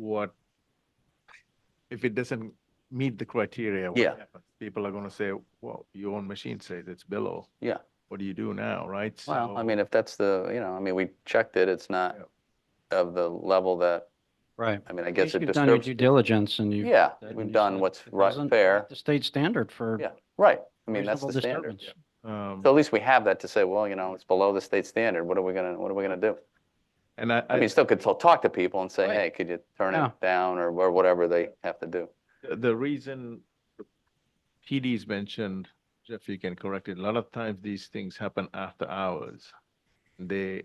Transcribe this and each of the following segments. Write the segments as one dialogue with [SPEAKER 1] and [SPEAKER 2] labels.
[SPEAKER 1] what, if it doesn't meet the criteria, what
[SPEAKER 2] Yeah.
[SPEAKER 1] happens? People are gonna say, well, your own machine says it's below.
[SPEAKER 2] Yeah.
[SPEAKER 1] What do you do now, right?
[SPEAKER 2] Well, I
[SPEAKER 1] So-
[SPEAKER 2] mean, if that's the, you know, I mean, we checked it, it's not
[SPEAKER 1] Yeah.
[SPEAKER 2] of the level that,
[SPEAKER 3] Right.
[SPEAKER 2] I mean, I guess it
[SPEAKER 3] You've done your
[SPEAKER 2] disturbs.
[SPEAKER 3] due diligence and you.
[SPEAKER 2] Yeah,
[SPEAKER 3] said when
[SPEAKER 2] we've
[SPEAKER 3] you
[SPEAKER 2] done
[SPEAKER 3] said
[SPEAKER 2] what's
[SPEAKER 3] it
[SPEAKER 2] right,
[SPEAKER 3] doesn't
[SPEAKER 2] fair,
[SPEAKER 3] meet The state standard for.
[SPEAKER 2] yeah, right. I mean, that's
[SPEAKER 3] reasonable
[SPEAKER 2] the standard.
[SPEAKER 3] disturbance.
[SPEAKER 1] Um,
[SPEAKER 2] So at least we have that to say, well, you know, it's below the state standard, what are we gonna, what are we gonna do?
[SPEAKER 1] And I,
[SPEAKER 2] I mean,
[SPEAKER 1] I,
[SPEAKER 2] you still could still talk to people and say,
[SPEAKER 3] Right.
[SPEAKER 2] hey, could you turn
[SPEAKER 3] Yeah.
[SPEAKER 2] it down or wha- whatever they have to do.
[SPEAKER 1] the reason PD's mentioned, Jeff, you can correct it, a lot of times these things happen after hours. They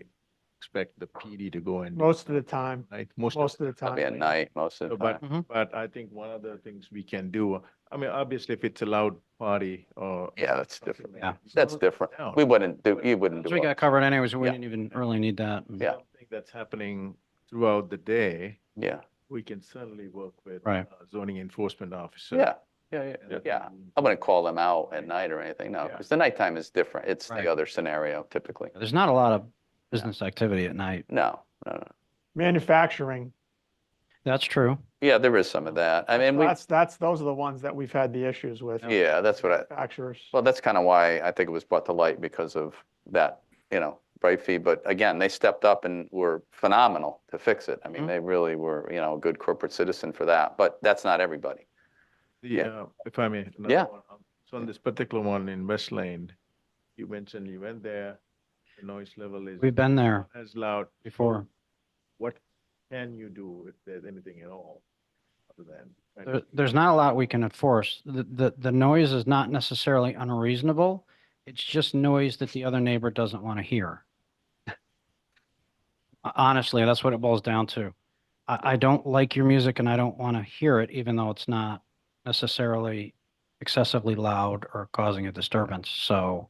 [SPEAKER 1] expect the PD to go and, do
[SPEAKER 4] Most of the time,
[SPEAKER 1] it, right? Most, of-
[SPEAKER 4] most of the
[SPEAKER 2] Probably at
[SPEAKER 4] time.
[SPEAKER 2] night, most of
[SPEAKER 1] so,
[SPEAKER 2] the
[SPEAKER 1] but,
[SPEAKER 2] time.
[SPEAKER 3] Mhm.
[SPEAKER 1] but I think one of the things we can do, I mean, obviously if it's a loud party or.
[SPEAKER 2] Yeah, that's
[SPEAKER 1] something
[SPEAKER 2] different.
[SPEAKER 1] like
[SPEAKER 3] Yeah.
[SPEAKER 1] that,
[SPEAKER 2] That's
[SPEAKER 1] slow it
[SPEAKER 2] different.
[SPEAKER 1] down.
[SPEAKER 2] We wouldn't do, you wouldn't
[SPEAKER 3] So
[SPEAKER 2] do
[SPEAKER 3] we
[SPEAKER 2] it.
[SPEAKER 3] got covered anyways, we
[SPEAKER 2] Yeah. Mm-hmm.
[SPEAKER 3] didn't even really need that. and-
[SPEAKER 2] Yeah.
[SPEAKER 1] Something that's happening throughout the day,
[SPEAKER 2] Yeah,
[SPEAKER 1] we can certainly work with.
[SPEAKER 3] Right.
[SPEAKER 1] uh, Zoning enforcement officer.
[SPEAKER 2] yeah, yeah, yeah,
[SPEAKER 1] and-
[SPEAKER 2] yeah. I wouldn't call them out at night or anything, no,
[SPEAKER 1] Yeah.
[SPEAKER 2] because the nighttime is different. It's
[SPEAKER 3] Right.
[SPEAKER 2] the other scenario typically.
[SPEAKER 3] There's not a lot of business activity at night.
[SPEAKER 2] No, no, no.
[SPEAKER 4] Manufacturing,
[SPEAKER 3] That's true.
[SPEAKER 2] Yeah, there is some of that. I mean, we,
[SPEAKER 4] that's, that's, those are the ones that we've had the issues with.
[SPEAKER 2] yeah, that's what I,
[SPEAKER 4] Manufacturers.
[SPEAKER 2] well, that's kind of why I think it was brought to light because of that, you know, bright fee. But again, they stepped up and were phenomenal to fix it. I mean,
[SPEAKER 3] Mhm.
[SPEAKER 2] they really were, you know, a good corporate citizen for that, but that's not everybody.
[SPEAKER 1] The,
[SPEAKER 2] Yeah.
[SPEAKER 1] uh, if I may. another
[SPEAKER 2] Yeah.
[SPEAKER 1] one. Um, So on this particular one in West Lane, you mentioned you went there, the noise level is
[SPEAKER 3] We've been there
[SPEAKER 1] not as loud.
[SPEAKER 3] before.
[SPEAKER 1] What can you do if there's anything at all? Other than. trying to
[SPEAKER 3] There, there's not a lot we can enforce. The, the, the noise is not necessarily unreasonable. It's just noise that the other neighbor doesn't want to hear. Honestly, that's what it boils down to. I, I don't like your music and I don't want to hear it, even though it's not necessarily excessively loud or causing a disturbance. So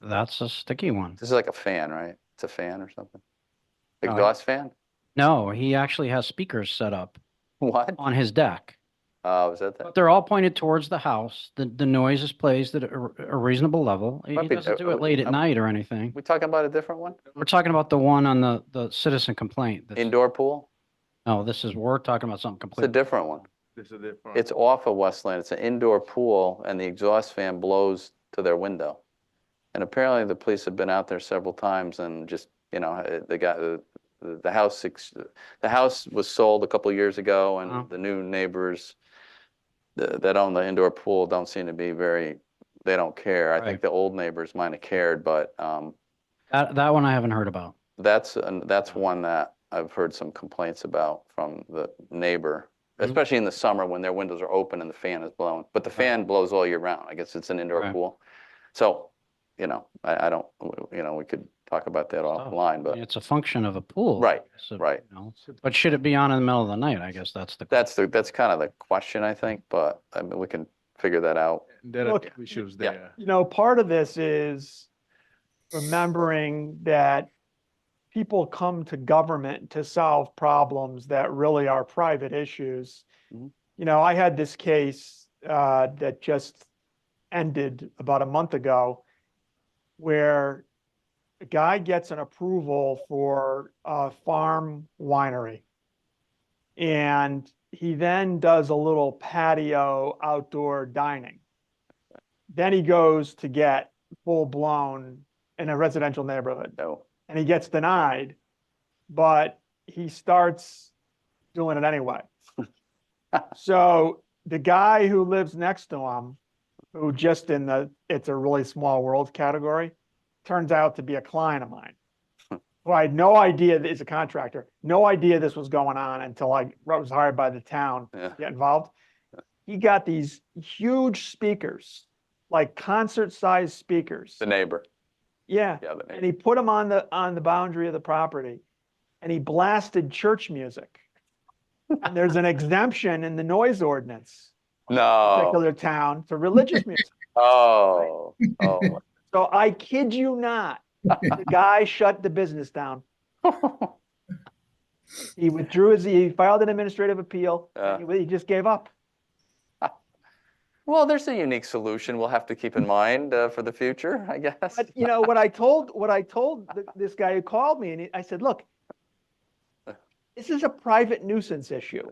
[SPEAKER 3] that's a sticky one.
[SPEAKER 2] This is like a fan, right? It's a fan or something?
[SPEAKER 3] No, I-
[SPEAKER 2] Exhaust fan?
[SPEAKER 3] No, he actually has speakers set up
[SPEAKER 2] What?
[SPEAKER 3] on his deck.
[SPEAKER 2] Oh, is that that?
[SPEAKER 3] But they're all pointed towards the house. The, the noise is placed at a a reasonable level. He he
[SPEAKER 2] Might be-
[SPEAKER 3] doesn't do
[SPEAKER 2] uh,
[SPEAKER 3] it late
[SPEAKER 2] uh,
[SPEAKER 3] at night or anything.
[SPEAKER 2] We talking about a different one?
[SPEAKER 3] We're talking about the one on the, the citizen complaint. that's-
[SPEAKER 2] Indoor pool?
[SPEAKER 3] No, this is, we're talking about something
[SPEAKER 2] It's a
[SPEAKER 3] completely.
[SPEAKER 2] different one.
[SPEAKER 1] This is different.
[SPEAKER 2] It's off of Westland. It's an indoor pool and the exhaust fan blows to their window. And apparently the police have been out there several times and just, you know, uh, the guy, the, the the house, ex- the house was sold a couple years ago
[SPEAKER 3] Wow.
[SPEAKER 2] and the new neighbors th- that own the indoor pool don't seem to be very, they don't care. I think
[SPEAKER 3] Right.
[SPEAKER 2] the old neighbors might have cared, but, um,
[SPEAKER 3] That, that one I haven't heard about.
[SPEAKER 2] that's, an- that's one that I've heard some complaints about from the neighbor,
[SPEAKER 3] Mhm.
[SPEAKER 4] Mm-hmm.
[SPEAKER 2] especially in the summer when their windows are open and the fan is blowing. But the fan blows all year round. I guess it's an indoor
[SPEAKER 3] Right.
[SPEAKER 2] pool. So, you know, I, I don't, w- you know, we could talk about that
[SPEAKER 4] Oh,
[SPEAKER 2] offline,
[SPEAKER 3] I
[SPEAKER 2] but
[SPEAKER 3] mean, It's a function of a pool.
[SPEAKER 2] Right,
[SPEAKER 3] so,
[SPEAKER 2] right.
[SPEAKER 3] you know. But should it be on in the middle of the night? I guess that's the.
[SPEAKER 2] that's the, that's kind of the question, I think, but I mean, we can figure that out.
[SPEAKER 1] There are
[SPEAKER 4] Look,
[SPEAKER 1] two issues
[SPEAKER 2] Oh, yeah.
[SPEAKER 1] there.
[SPEAKER 4] you know, part of this is remembering that people come to government to solve problems that really are private issues.
[SPEAKER 2] Mhm.
[SPEAKER 4] You know, I had this case uh, that just ended about a month ago where a guy gets an approval for a farm winery. And he then does a little patio outdoor dining then he goes to get full blown in a residential neighborhood
[SPEAKER 2] No,
[SPEAKER 4] and he gets denied, but he starts doing it anyway. so the guy who lives next to him, who just in the it's a really small world category, turns out to be a client of mine. who I had no idea that is a contractor, no idea this was going on until I was hired by the town
[SPEAKER 2] yeah,
[SPEAKER 4] get involved. He got these huge speakers, like concert-sized speakers.
[SPEAKER 2] the neighbor,
[SPEAKER 4] Yeah,
[SPEAKER 2] yeah, the
[SPEAKER 4] and
[SPEAKER 2] neighbor.
[SPEAKER 4] he put them on the, on the boundary of the property, and he blasted church music. And there's an exemption in the noise ordinance,
[SPEAKER 2] No,
[SPEAKER 4] particular town, to religious music.
[SPEAKER 2] oh, oh.
[SPEAKER 4] So I kid you not, the guy shut the business down.
[SPEAKER 2] Oh.
[SPEAKER 4] He withdrew his, he filed an administrative appeal, and he he just gave up.
[SPEAKER 2] Well, there's a unique solution we'll have to keep in mind uh, for the future, I guess.
[SPEAKER 4] But you know, what I told, what I told th- this guy who called me and he- I said, look, this is a private nuisance issue.